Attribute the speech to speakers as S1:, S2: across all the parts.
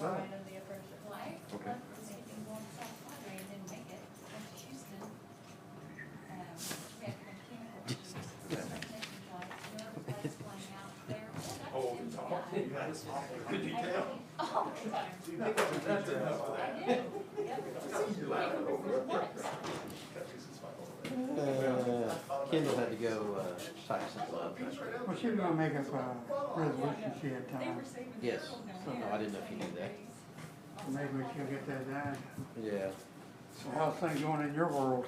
S1: Oh.
S2: item be approved.
S3: Why?
S1: Okay.
S3: They didn't make it, went to Houston. Um, we had mechanical issues. Taking flights, the other flights flying out there.
S4: Oh, it's awful. That's awful. Could you tell?
S3: Oh, God. I did, yep.
S4: You laugh
S3: It was
S4: over it.
S3: nuts.
S1: Uh, Kendall had to go, uh, type something up.
S5: Well, she was gonna make us a resolution she had
S3: They
S5: time,
S3: were saving
S1: Yes.
S3: their own
S1: So, no, I didn't know if you knew that.
S3: days.
S5: so maybe we should get that done.
S1: Yeah,
S5: So how's things going in your world?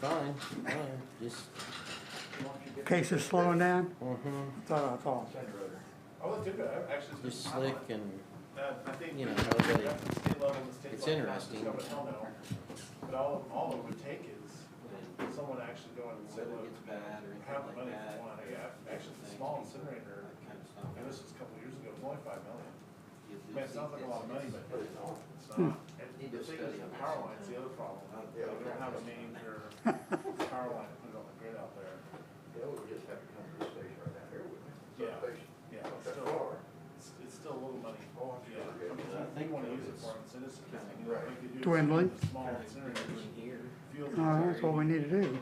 S1: fine, fine, just,
S5: Cases slowing down?
S1: mhm,
S5: I thought I saw.
S4: Oh, it's good, I actually.
S1: just slick and,
S4: Uh, I think.
S1: you know,
S4: it's
S1: nobody-
S4: state level and state
S1: it's
S4: level,
S1: interesting.
S4: just go, "Hell no." But all, all it would take is someone actually going and say,
S6: Whether it
S4: look,
S6: gets bad or
S4: have the
S6: anything like
S4: money
S6: that.
S4: for one, hey, I- actually, it's a small incinerator,
S6: that kind of stuff.
S4: and this was a couple of years ago, it's only five million.
S6: You
S4: I mean, it sounds like a lot of money, but
S6: it's-
S4: it's not, it's not. And the thing is, the power line's the other problem, uh, they
S6: Yeah.
S4: don't have a name for power line to put on the grid out there.
S7: They would just have to come to the station right down here with me.
S4: Yeah.
S7: Substation.
S4: Yeah, it's
S7: That's
S4: still,
S7: far.
S4: it's, it's still a little money.
S7: Oh, I'm
S4: Yeah,
S7: sure.
S4: I mean, they wanna use it for citizens, I mean,
S7: Right.
S4: like they do.
S5: Dwindling.
S4: with Small
S6: Apparently it's in
S4: incinerators,
S6: here.
S4: fuel.
S5: No, Oh, that's what we need to do.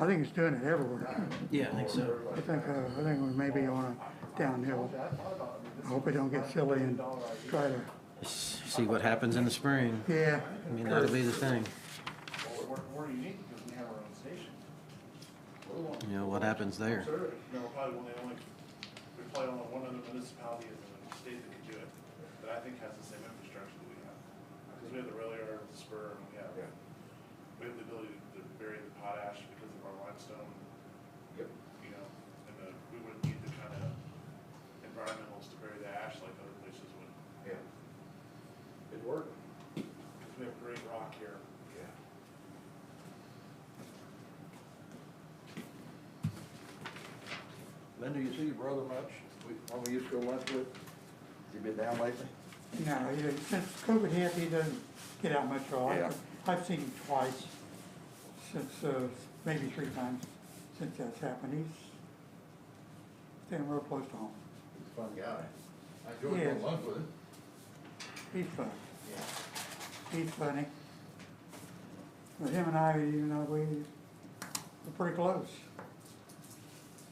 S5: I think it's doing it everywhere.
S1: yeah, I think so.
S5: I think, uh, I think we may be on a downhill. I hope we don't get silly and try to,
S1: S- See what happens in the spring,
S5: yeah.
S1: I mean, that'll be the thing,
S4: We're, we're unique because we have our own station.
S1: you know, what happens there.
S4: Sure. You know, probably one of the only, there's probably only one other municipality in the state that can do it, that I think has the same infrastructure that we have. Because we have the rail yard, the spur, and we have,
S7: Yeah.
S4: we have the ability to bury the potash because of our limestone
S7: Yep.
S4: you know, and the, we wouldn't need the kind of environmentals to bury the ash like other places would.
S7: Yeah. It worked.
S4: Cause we have great rock here.
S7: Yeah. Linda, you see your brother much? We, when we used to go lunch with, he been down lately?
S5: No, he- since COVID hit, he doesn't get out much at all.
S7: Yeah.
S5: I've seen him twice, since, uh, maybe three times since that's happened. He's staying real close to home.
S7: He's a fun guy. I enjoyed going
S5: Yeah.
S7: lunch with him.
S5: He's fun.
S7: Yeah.
S5: He's funny. But him and I, you know, we, we're pretty close.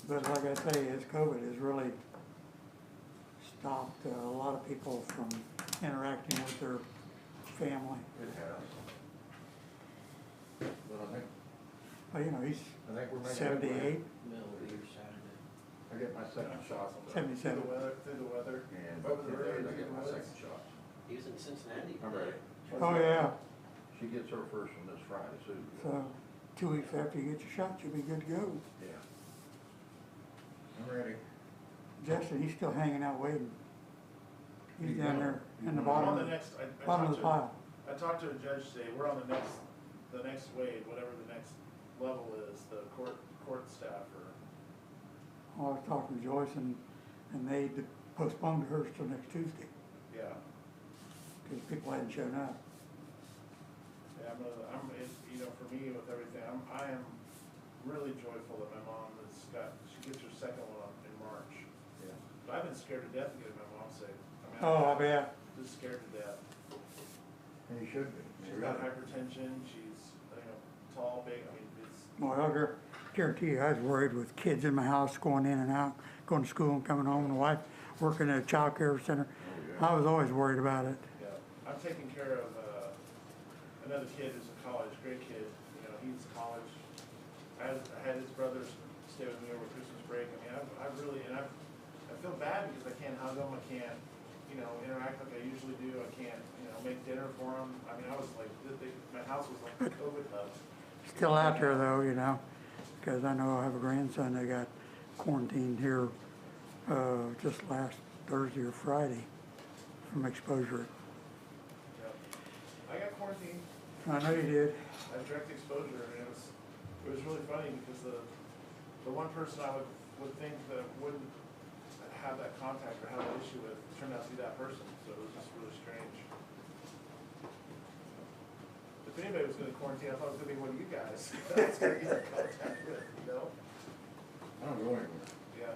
S5: But like I say, as COVID has really stopped uh, a lot of people from interacting with their family.
S7: It has. But I think,
S5: But, you know, he's
S7: I think we're making. headway.
S5: seventy-eight,
S6: Middle of the year Saturday.
S7: I get my second shot.
S4: Through
S5: seventy-seven.
S4: the weather, through the weather.
S7: And
S4: Over the
S7: today
S4: river,
S7: I
S4: through
S7: get
S4: the
S7: my
S4: woods.
S7: second shot.
S6: He was in Cincinnati.
S7: I'm ready.
S5: Oh, yeah,
S7: She gets her first one this Friday, Susan.
S5: so two weeks after you get your shot, you'll be good to go.
S7: Yeah. I'm ready.
S5: Justin, he's still hanging out waiting. He's
S7: He's
S5: down
S7: gone.
S5: there in the
S7: He's
S4: We're
S5: bottom,
S4: on the
S5: of the-
S4: next, I, I
S5: bottom of
S4: talked
S5: the
S4: to,
S5: pile.
S4: I talked to a judge today, we're on the next, the next wave, whatever the next level is, the court, court staff or,
S5: I was talking to Joyce and, and they d- postponed hers till next Tuesday,
S4: yeah.
S5: cause people hadn't shown up.
S4: Yeah, I'm, a- I'm, it, you know, for me with everything, I'm, I am really joyful that my mom has got, she gets her second one in March.
S7: Yeah.
S4: But I've been scared to death to get my mom saved. I mean,
S5: Oh, I
S4: I'm
S5: bet.
S4: Just scared to death.
S7: And you should be.
S4: She's got hypertension, she's, you know, tall, big, I mean, it's,
S5: Well, I guar- guarantee you, I was worried with kids in my house going in and out, going to school and coming home, and wife working at a child care center. I was always worried about it.
S4: yeah. I'm taking care of, uh, another kid who's in college, great kid, you know, he's in college. I, I had his brothers stay with me over Christmas break, I mean, I, I really, and I, I feel bad because I can't hug him, I can't, you know, interact like I usually do, I can't, you know, make dinner for him. I mean, I was like, th- they, my house was like a COVID hub.
S5: Still out there though, you know, because I know I have a grandson that got quarantined here, uh, just last Thursday or Friday from exposure.
S4: Yeah. I got quarantined,
S5: I know you did.
S4: I had direct exposure, and it was, it was really funny because the, the one person I would, would think that wouldn't have that contact or have an issue with turned out to be that person, so it was just really strange. If anybody was gonna quarantine, I thought it was gonna be one of you guys. That's gonna be the contact with, you know?
S7: I don't go anywhere.
S4: Yeah.